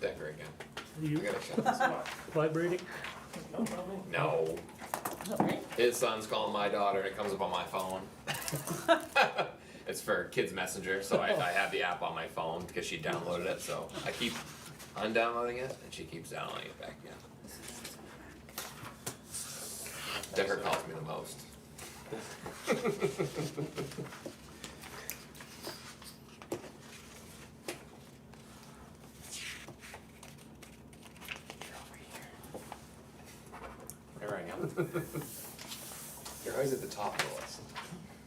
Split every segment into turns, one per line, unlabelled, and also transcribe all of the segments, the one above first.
Denver again. I
You
gotta shut this off.
vibrating?
No, his son's calling my daughter and it comes up on my phone. it's for Kids Messenger, so I, I have the app on my phone because she downloaded it, so I keep undownloading it and she keeps downloading it back again. Denver calls me the most. There I am. You're always at the top of the list.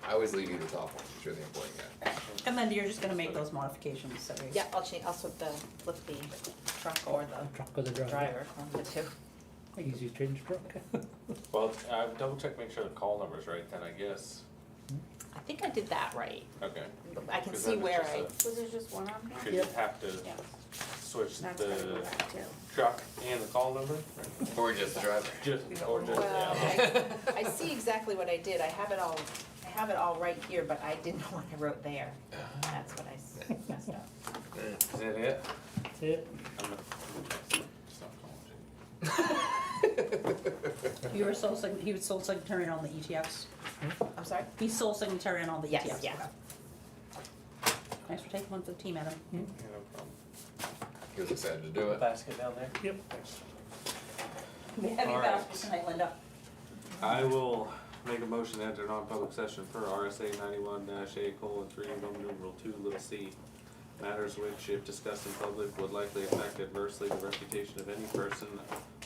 I always leave you the top one, 'cause you're the important guy.
And Linda, you're just gonna make those modifications, so we.
Yeah, I'll change, I'll swap the, flip the truck or the
Truck or the driver?
driver, one of the two.
Easy to change truck.
Well, I double check, make sure the call number's right then, I guess.
I think I did that right.
Okay.
I can
Because
see
then it's
where
just
I,
a-
Was there just one on here?
Cause you have to
yeah,
switch
That's gotta go
the
back too.
truck and the call number? right?
Or just the driver.
Just, or just,
well,
yeah.
I, I see exactly what I did, I have it all, I have it all right here, but I didn't know what I wrote there. That's what I s- messed up.
Is that it?
That's it.
I'm gonna- stop calling you.
You were sole sign, he was sole signatory on all the ETFs.
I'm sorry?
He's sole signatory on all the
Yes,
ETFs.
yeah.
Thanks for taking one for the team, Adam.
Yeah, no problem.
He was excited to do it.
Basket down there?
Yep.
We have
All
your
right.
basket tonight, Linda.
I will make a motion to enter non-public session per RSA ninety-one dash A colon three, Roman numeral two, little c. Matters which, if discussed in public, would likely affect adversely the reputation of any person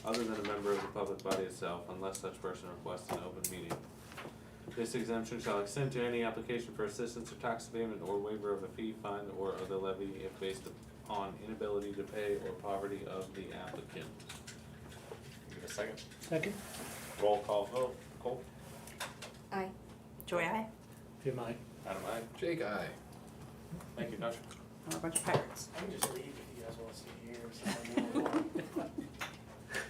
other than a member of the public body itself, unless such person requests an open meeting. This exemption shall extend to any application for assistance or tax abatement or waiver of a fee, fund, or other levy if based upon inability to pay or poverty of the applicant. Give it a second.
Second,
Roll call vote, Cole?
Aye.
Joy, I.
if you mind.
Adam, aye.
Jake, I.
Thank you, Josh.
I'm a bunch of pirates.
I can just leave if you guys want to sit here. or something.